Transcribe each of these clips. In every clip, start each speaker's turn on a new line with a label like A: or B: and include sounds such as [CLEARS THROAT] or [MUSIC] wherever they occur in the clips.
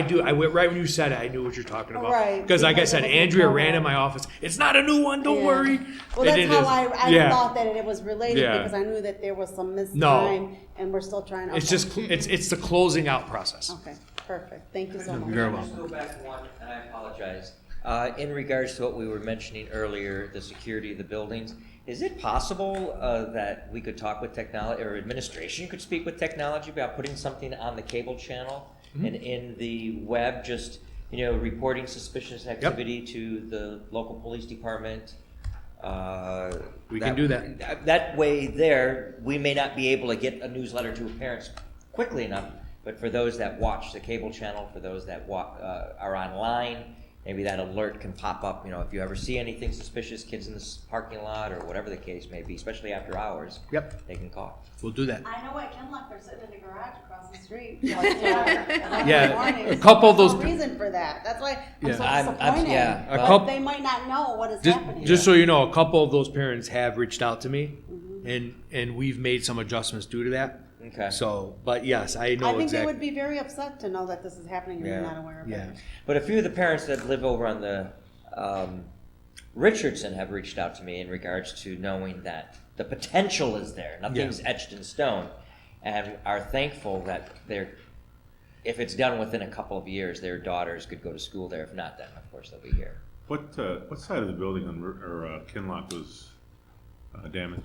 A: I do. I went right when you said it. I knew what you're talking about.
B: Right,
A: Because, like I
B: because it
A: said,
B: was a
A: Andrea
B: promo.
A: ran in my office. It's not a new one. Don't
B: Yeah.
A: worry. And
B: Well, that's
A: it
B: how
A: is.
B: I, I
A: yeah.
B: thought that it was related
A: Yeah.
B: because I knew that there was some missed
A: No.
B: time, and we're still trying.
A: It's
B: okay.
A: just cl- it's it's the closing out process.
B: okay, perfect. Thank you so much.
C: You're welcome.
D: Just go back one, and I apologize. Uh, In regards to what we were mentioning earlier, the security of the buildings, is it possible uh, that we could talk with technology, or administration could speak with technology about putting something on the cable channel
A: Mm-hmm.
D: and in the web, just, you know, reporting suspicious activity to the local police department? uh,
A: We can do that.
D: That way there, we may not be able to get a newsletter to parents quickly enough, but for those that watch the cable channel, for those that wa- uh, are online, maybe that alert can pop up, you know, if you ever see anything suspicious, kids in this parking lot, or whatever the case may be, especially after hours.
A: Yep.
D: They can call.
C: We'll do that.
B: I know at Kenlock they're sitting in the garage across the street. [LAUGHS] Yeah,
A: Yeah, a couple of those-
B: Reason for that. That's why I'm
A: Yeah.
B: so
D: I'm- I'm-
B: disappointed.
D: yeah.
A: A
B: But
A: couple-
B: They might not know what is
A: Just,
B: happening.
A: just so you know, a couple of those parents have reached out to me,
B: Mm-hmm.
A: and and we've made some adjustments due to that.
D: Okay.
A: So, but yes, I know
B: I think they
A: exactly.
B: would be very upset to know that this is happening and you're
D: Yeah.
B: not aware of
A: yeah.
B: it.
D: But a few of the parents that live over on the um, Richardson have reached out to me in regards to knowing that the potential is there. Nothing's etched in stone, and are thankful that they're. If it's done within a couple of years, their daughters could go to school there. If not, then of course they'll be here.
E: What, uh, what side of the building on, Ru- or, uh, Kinlock was, uh, damaged?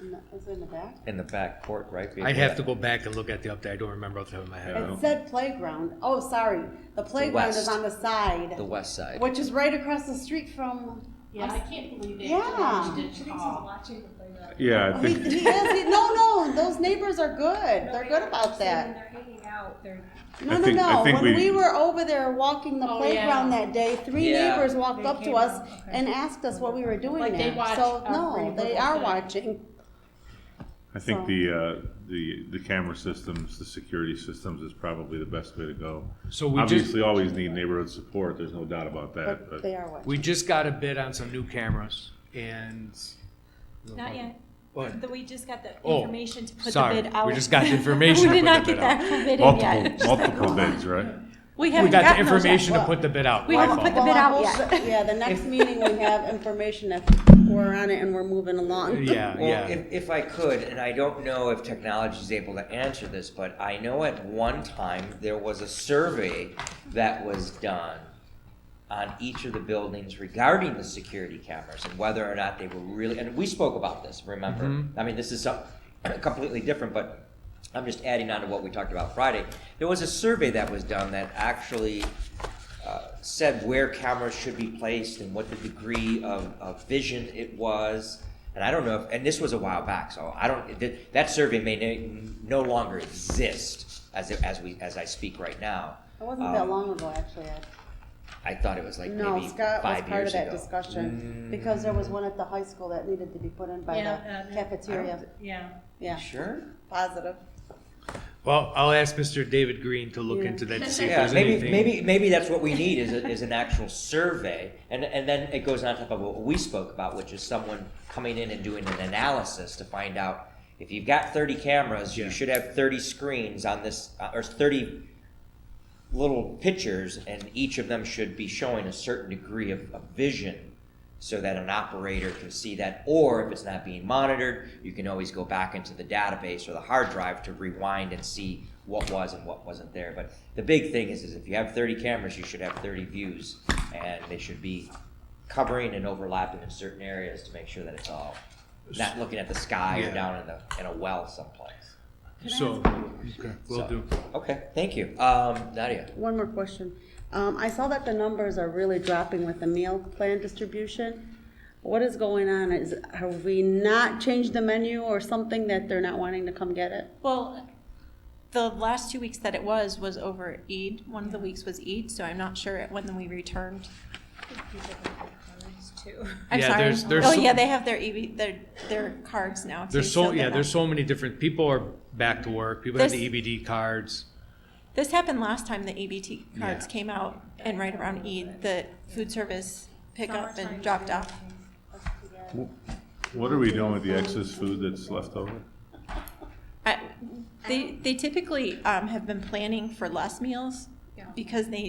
B: In the- Is it in the back?
D: In the back court, right?
A: I'd have to go back and look at the update. I don't remember off the top of my head.
E: Yeah.
B: It said playground. Oh, sorry. The playground is
D: west.
B: on the side,
D: The west side.
B: which is right across the street from.
F: Yeah, I can't believe it.
B: Yeah.
F: She didn't call.
E: Yeah, I
B: He,
E: think,
B: he is. He, no, no. Those neighbors are good. They're good about
G: When
B: that.
G: they're hanging out, they're
B: No,
E: I
B: no,
E: think- I
B: no.
E: think
B: When we
E: we-
B: were over there walking the
F: Oh,
B: playground that day, three
D: Yeah.
B: neighbors walked up to
G: came
B: us
G: up, okay.
B: and asked us what we were doing
F: Like, they
B: there.
F: watch
B: so
F: our
B: no,
F: pretty
B: they
F: purple
B: are
F: thing.
B: watching.
E: I think the, uh, the, the camera systems, the security systems is probably the best way to go.
A: So we just-
E: Obviously, always need neighborhood support, there's no doubt about that,
B: But
E: but.
B: they are watching.
A: We just got a bid on some new cameras, and
G: not yet.
A: What?
G: That we just got the
A: Oh,
G: information to put the
A: sorry.
G: bid out.
A: We just got
G: [LAUGHS]
A: the information to
G: We
A: put
G: did not
A: the
G: get
A: bid out.
G: that full bid in
E: Multiple,
B: [LAUGHS]
G: yet.
E: multiple bids, right?
A: we
G: We haven't
A: got the
G: gotten those yet.
A: information to
B: Well,
A: put the bid out.
G: we
A: by
G: haven't
A: phone.
G: put the bid
B: Well,
G: out
B: we'll
G: yet.
B: s- Yeah, the
G: [LAUGHS]
B: next meeting we have information if we're on it and we're moving along.
A: Yeah,
D: Well,
A: yeah.
D: if, if I could, and I don't know if technology is able to answer this, but I know at one time there was a survey that was done on each of the buildings regarding the security cameras and whether or not they were really. And we spoke about this. Remember,
A: Mm-hmm.
D: I mean, this is some, [CLEARS THROAT] completely different, but I'm just adding on to what we talked about Friday. There was a survey that was done that actually uh, said where cameras should be placed and what the degree of, of vision it was. And I don't know if, and this was a while back, so I don't, th- that survey may no- no longer exist as, it- as we, as I speak right now.
B: It wasn't that
D: Um,
B: long ago, actually. Ed.
D: I thought it was like
B: No,
D: maybe
B: Scott was part
D: five
B: of
D: years
B: that
D: ago.
B: discussion, because there was one at the high school that needed to be put in by
F: Yeah,
B: the
F: uh,
D: I don't
B: cafeteria.
F: Yeah.
B: Yeah,
D: Sure?
B: positive.
A: Well, I'll ask Mr. David Green to look
B: Yeah.
A: into that to see if
D: Yeah,
A: there's
D: maybe,
A: anything.
D: maybe, maybe that's what we need is, a- is an actual survey. And, and then it goes on top of what we spoke about, which is someone coming in and doing an analysis to find out if you've got thirty cameras,
A: Yeah.
D: you should have thirty screens on this, uh, or thirty little pictures, and each of them should be showing a certain degree of, of vision so that an operator can see that, or if it's not being monitored, you can always go back into the database or the hard drive to rewind and see what was and what wasn't there. But the big thing is, is if you have thirty cameras, you should have thirty views, and they should be covering and overlapping in certain areas to make sure that it's all, not looking at the sky
A: Yeah.
D: or down in the, in a well someplace.
A: So, okay, will
D: So-
A: do.
D: Okay, thank you. Um, Nadia?
B: One more question. Um, I saw that the numbers are really dropping with the meal plan distribution. What is going on? Is, have we not changed the menu or something that they're not wanting to come get it?
G: Well, the last two weeks that it was, was over Eid. One of the weeks was Eid, so I'm not sure when we returned. people can put colors too. I'm
A: Yeah,
G: sorry.
A: there's- there's
G: Oh,
A: so-
G: yeah, they have their EB, their, their cards now. too,
A: There's so
G: they're
A: yeah,
G: not-
A: there's so many different people are back to work. People have
G: There's-
A: the EBD cards.
G: This happened last time the ABT cards
A: Yeah.
G: came out, and right around Eid, the food service pickup and dropped off.
E: What are we doing with the excess food that's left over?
G: I, they, they typically um, have been planning for less meals because they